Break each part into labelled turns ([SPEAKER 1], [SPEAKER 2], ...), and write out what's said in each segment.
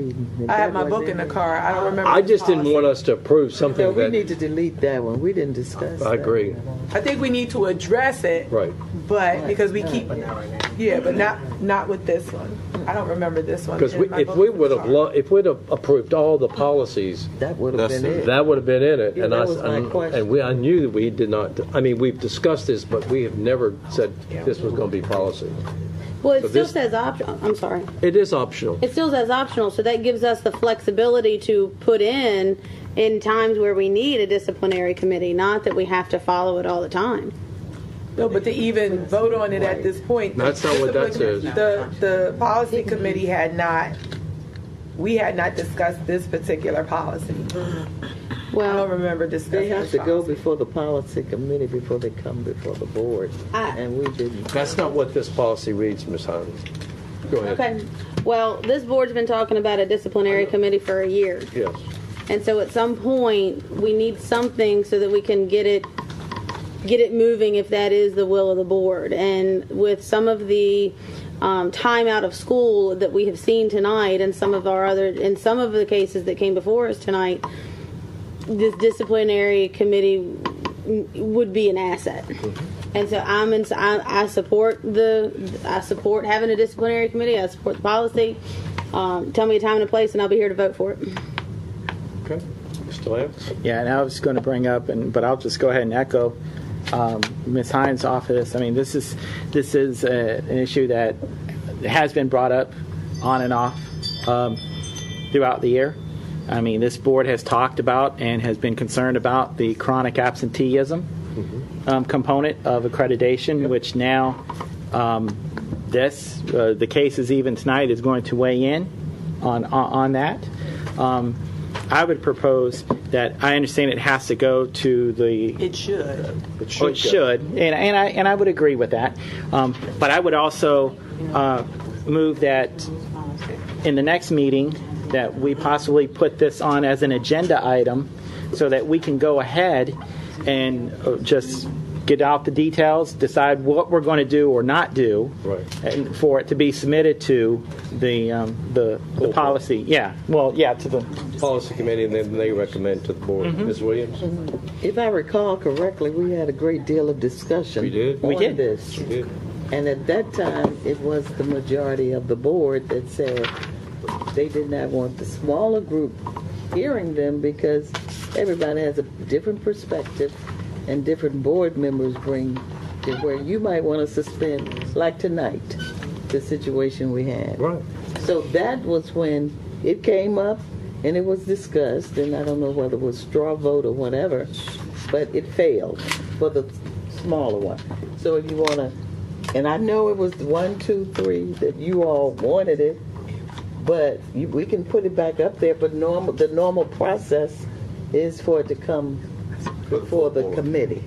[SPEAKER 1] reading.
[SPEAKER 2] I have my book in the car. I don't remember.
[SPEAKER 3] I
[SPEAKER 2] the
[SPEAKER 3] just didn't
[SPEAKER 2] policy.
[SPEAKER 3] want us to approve something
[SPEAKER 1] So we
[SPEAKER 3] that,
[SPEAKER 1] need to delete that one. We didn't discuss.
[SPEAKER 3] I
[SPEAKER 1] that.
[SPEAKER 3] agree,
[SPEAKER 2] I think we need to address it,
[SPEAKER 3] right.
[SPEAKER 2] but because we keep, yeah, but not not with this one. I don't remember this one.
[SPEAKER 3] Because
[SPEAKER 2] in my
[SPEAKER 3] if
[SPEAKER 2] book
[SPEAKER 3] we
[SPEAKER 2] in the
[SPEAKER 3] would have,
[SPEAKER 2] car.
[SPEAKER 3] lo- if we'd have approved all the policies,
[SPEAKER 1] That would have
[SPEAKER 4] That's
[SPEAKER 1] been
[SPEAKER 4] it.
[SPEAKER 1] it.
[SPEAKER 3] that would have been in it.
[SPEAKER 1] Yeah,
[SPEAKER 3] And I
[SPEAKER 1] that
[SPEAKER 3] s-
[SPEAKER 1] was my
[SPEAKER 3] and-
[SPEAKER 1] question.
[SPEAKER 3] And we, I knew that we did not, I mean, we've discussed this, but we have never said this was going to be policy.
[SPEAKER 5] Well, it
[SPEAKER 3] So
[SPEAKER 5] still
[SPEAKER 3] this-
[SPEAKER 5] says optional. I'm sorry.
[SPEAKER 3] It is optional.
[SPEAKER 5] It still says optional, so that gives us the flexibility to put in in times where we need a disciplinary committee, not that we have to follow it all the time.
[SPEAKER 2] No, but to even vote on it at this point.
[SPEAKER 3] That's not what that says.
[SPEAKER 2] The, the policy committee had not, we had not discussed this particular policy. I don't
[SPEAKER 5] Well,
[SPEAKER 2] remember
[SPEAKER 1] They
[SPEAKER 2] discussing
[SPEAKER 1] have
[SPEAKER 2] this
[SPEAKER 1] to go
[SPEAKER 2] policy.
[SPEAKER 1] before the policy committee before they come before the board,
[SPEAKER 5] I-
[SPEAKER 1] and we didn't.
[SPEAKER 3] That's not what this policy reads, Ms. Hines. Go ahead.
[SPEAKER 5] okay. Well, this board's been talking about a disciplinary committee for a year.
[SPEAKER 3] Yes.
[SPEAKER 5] And so at some point, we need something so that we can get it get it moving if that is the will of the board. And with some of the um, time out of school that we have seen tonight, and some of our other, in some of the cases that came before us tonight, this disciplinary committee w- would be an asset. And so I'm in, I, I support the I support having a disciplinary committee. I support the policy. Um, tell me a time and a place, and I'll be here to vote for it.
[SPEAKER 3] Okay. Mr. Lance?
[SPEAKER 6] Yeah, and I was going to bring up, and but I'll just go ahead and echo um, Ms. Hines' off of this. I mean, this is this is uh an issue that has been brought up on and off um, throughout the year. I mean, this board has talked about and has been concerned about the chronic absenteeism um, component of accreditation, which now um, this uh, the cases even tonight is going to weigh in on on, on that. Um, I would propose that I understand it has to go to the
[SPEAKER 2] It should.
[SPEAKER 6] or it should, and, and I and I would agree with that. Um, but I would also uh, move that in the next meeting that we possibly put this on as an agenda item, so that we can go ahead and uh, just get out the details, decide what we're going to do or not do,
[SPEAKER 3] Right.
[SPEAKER 6] and for it to be submitted to the um, the, the
[SPEAKER 3] board.
[SPEAKER 6] policy. Yeah, well, yeah, to the
[SPEAKER 3] Policy committee, and then they recommend to the board.
[SPEAKER 1] Mm-hmm.
[SPEAKER 3] Ms. Williams?
[SPEAKER 1] If I recall correctly, we had a great deal of discussion.
[SPEAKER 3] We did.
[SPEAKER 6] We
[SPEAKER 1] on
[SPEAKER 6] did.
[SPEAKER 1] this.
[SPEAKER 3] did.
[SPEAKER 1] And at that time, it was the majority of the board that said they did not want the smaller group hearing them because everybody has a different perspective and different board members bring to where you might want to suspend, like tonight, the situation we had.
[SPEAKER 3] Right.
[SPEAKER 1] So that was when it came up and it was discussed, and I don't know whether it was straw vote or whatever, but it failed for the smaller one. So if you want to, and I know it was one, two, three that you all wanted it, but you, we can put it back up there. But normal, the normal process is for it to come before the committee.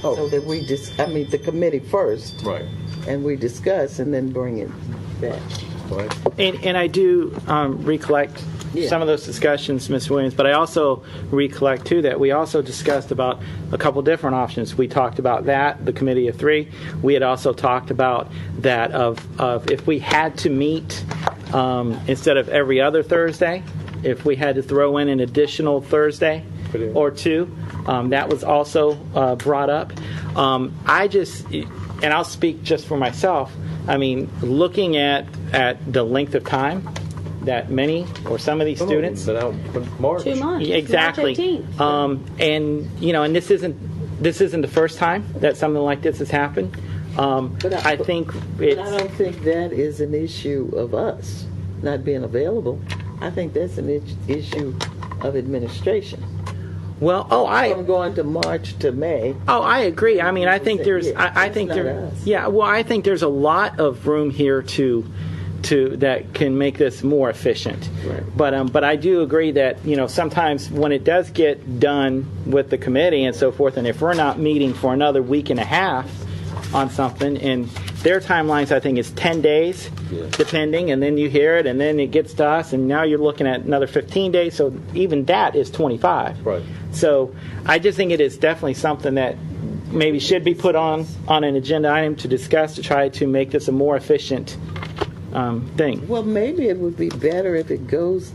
[SPEAKER 1] So that we just, I mean, the committee first,
[SPEAKER 3] Right.
[SPEAKER 1] and we discuss and then bring it back.
[SPEAKER 3] Right.
[SPEAKER 6] And, and I do um, recollect
[SPEAKER 1] Yeah.
[SPEAKER 6] some of those discussions, Ms. Williams, but I also recollect too that we also discussed about a couple different options. We talked about that, the committee of three. We had also talked about that of, of if we had to meet um, instead of every other Thursday, if we had to throw in an additional Thursday
[SPEAKER 3] Put in.
[SPEAKER 6] or two, um, that was also uh, brought up. Um, I just, and I'll speak just for myself. I mean, looking at at the length of time that many or some of these students
[SPEAKER 3] But now, but March.
[SPEAKER 5] Two months.
[SPEAKER 6] Yeah, exactly.
[SPEAKER 5] March 18th.
[SPEAKER 6] Um, and you know, and this isn't this isn't the first time that something like this has happened. Um,
[SPEAKER 1] But
[SPEAKER 6] I,
[SPEAKER 1] I-
[SPEAKER 6] think
[SPEAKER 1] But I
[SPEAKER 6] it's
[SPEAKER 1] don't think that is an issue of us not being available. I think that's an is- issue of administration.
[SPEAKER 6] well. Oh, I
[SPEAKER 1] From going to March to May,
[SPEAKER 6] Oh, I agree. I mean, I think there's, I, I
[SPEAKER 1] It's
[SPEAKER 6] think
[SPEAKER 1] not
[SPEAKER 6] there,
[SPEAKER 1] us.
[SPEAKER 6] yeah. Well, I think there's a lot of room here to, to that can make this more efficient.
[SPEAKER 1] Right.
[SPEAKER 6] But um, but I do agree that you know sometimes when it does get done with the committee and so forth, and if we're not meeting for another week and a half on something, and their timelines I think is ten days, depending, and then you hear it, and then it gets to us, and now you're looking at another fifteen days. So even that is twenty five.
[SPEAKER 3] Right.
[SPEAKER 6] So I just think it is definitely something that maybe should be put on, on an agenda item to discuss to try to make this a more efficient um, thing.
[SPEAKER 1] Well, maybe it would be better if it goes